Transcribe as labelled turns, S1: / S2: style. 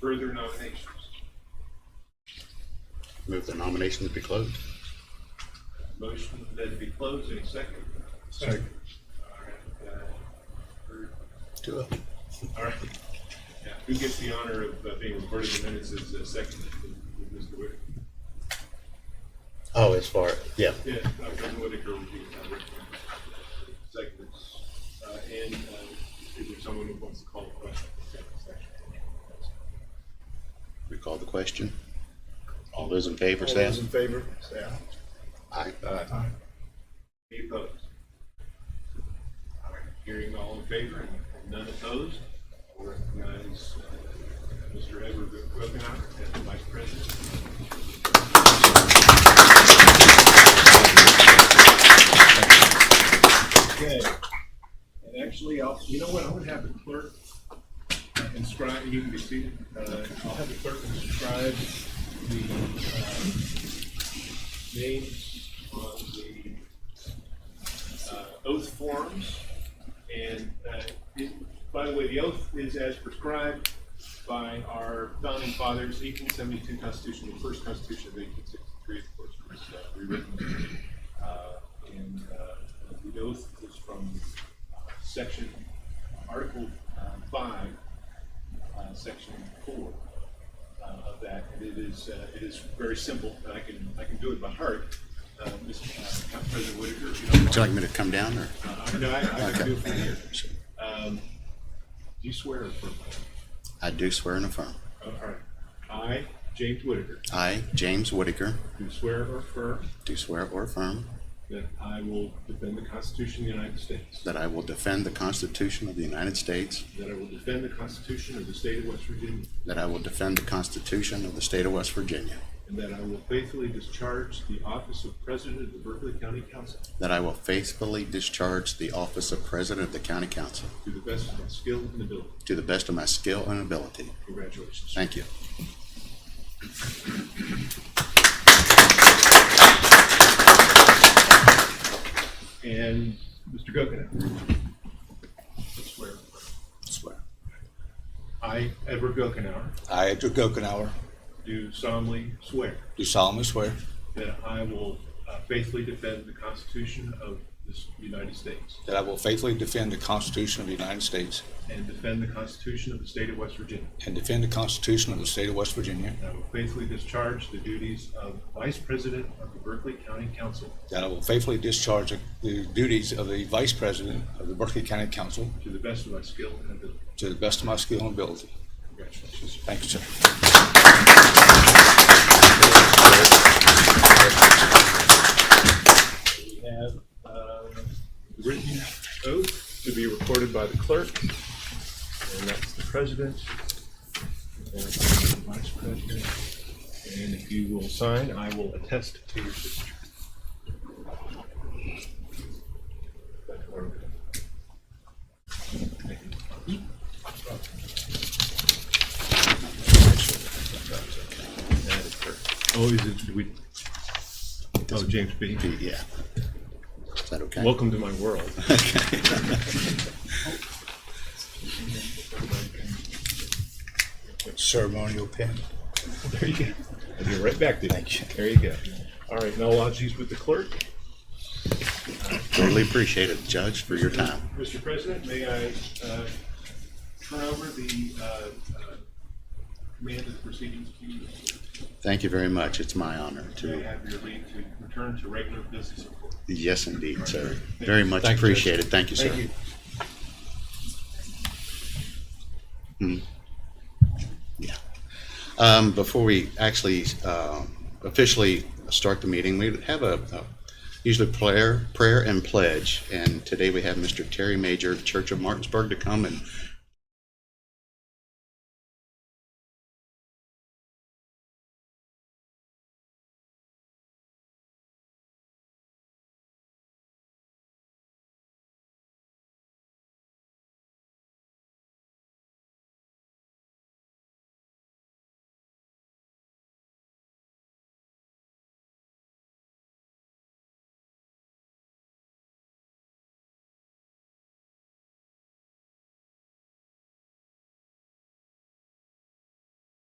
S1: Further nominations?
S2: Move the nominations be closed.
S1: Motion that be closed in a second.
S3: Second.
S1: All right, uh, or-
S2: Do it.
S1: All right. Yeah, Who gets the honor of uh, being recorded in the minutes as uh, second? Mr. Whitaker?
S2: Oh, as far, yeah,
S1: Yeah, uh, President Whitaker would be uh, recommended. Second. Uh, And uh, is there someone who wants to call the question? Second section.
S2: we call the question. All those in favor, say
S3: All those in
S2: aye.
S3: favor, say aye.
S2: aye.
S3: Aye.
S1: Any opposed? All right, Hearing all in favor and none opposed, I recognize uh, Mr. Edward Wilkenhour as the Vice President. Okay, and actually, I'll, you know what, I'm gonna have the clerk inscribe, you can be seated, Uh, I'll have the clerk inscribe the uh, names on the uh, oath forms. And uh, it- by the way, the oath is as prescribed by our founding fathers, 1872 Constitution, the first Constitution of 1863, of course, was uh, rewritten. Uh, And uh, the oath is from uh, section, Article uh, 5, uh, Section 4 uh, of that. And it is, uh, it is very simple, and I can, I can do it by heart. Uh, Mr. uh, President Whitaker, if you don't mind.
S2: Would you like me to come down or?
S1: Uh, No, I, I can do it from here.
S2: Sure.
S1: Um, do you swear or affirm?
S2: I do swear and affirm.
S1: Oh, All right. I, James Whitaker,
S2: I, James Whitaker,
S1: do swear or affirm
S2: do swear or affirm
S1: that I will defend the Constitution of the United States,
S2: that I will defend the Constitution of the United States,
S1: that I will defend the Constitution of the state of West Virginia,
S2: that I will defend the Constitution of the state of West Virginia,
S1: and that I will faithfully discharge the office of President of the Berkeley County Council
S2: that I will faithfully discharge the office of President of the County Council
S1: to the best of my skill and ability.
S2: to the best of my skill and ability.
S1: Congratulations.
S2: Thank you.
S1: And Mr. Gokenhour. I Swear. or affirm.
S2: Swear.
S1: I, Edward Gokenhour,
S4: I, Edward Gokenhour,
S1: do solemnly swear
S4: do solemnly swear
S1: That I will uh, faithfully defend the Constitution of this United States
S4: that I will faithfully defend the Constitution of the United States
S1: and defend the Constitution of the State of West Virginia.
S4: and defend the Constitution of the State of West Virginia,
S1: And I will faithfully discharge the duties of Vice President of the Berkeley County Council
S4: that I will faithfully discharge the duties of the Vice President of the Berkeley County Council
S1: to the best of my skill and ability.
S4: to the best of my skill and ability.
S1: Congratulations.
S4: Thank you, sir.
S1: We have uh, the written oath to be recorded by the clerk, and that's the president, and that's the vice president. And if you will sign, I will attest to your signature. Oh, is it, do we, oh, James B.
S2: Yeah. Is that okay?
S1: Welcome to my world.
S4: Ceremonial pin.
S1: There you go. I'll be right back to you.
S4: Thank you.
S1: There you go. All right, now lodge these with the clerk.
S2: Totally appreciate it, Judge, for your time.
S1: Mr. President, may I uh, turn over the uh, uh, command of the proceedings to you?
S2: Thank you very much. It's my honor
S1: May I
S2: to,
S1: have your leave to return to regular business of court?
S2: yes, indeed, sir. Very much
S4: Thank you, Judge.
S2: appreciated. Thank you,
S1: Thank
S2: sir.
S1: you.
S2: Yeah. Um, Before we actually uh, officially start the meeting, we have a, a- usually prayer, prayer and pledge. And today we have Mr. Terry Major, Church of Martinsburg, to come and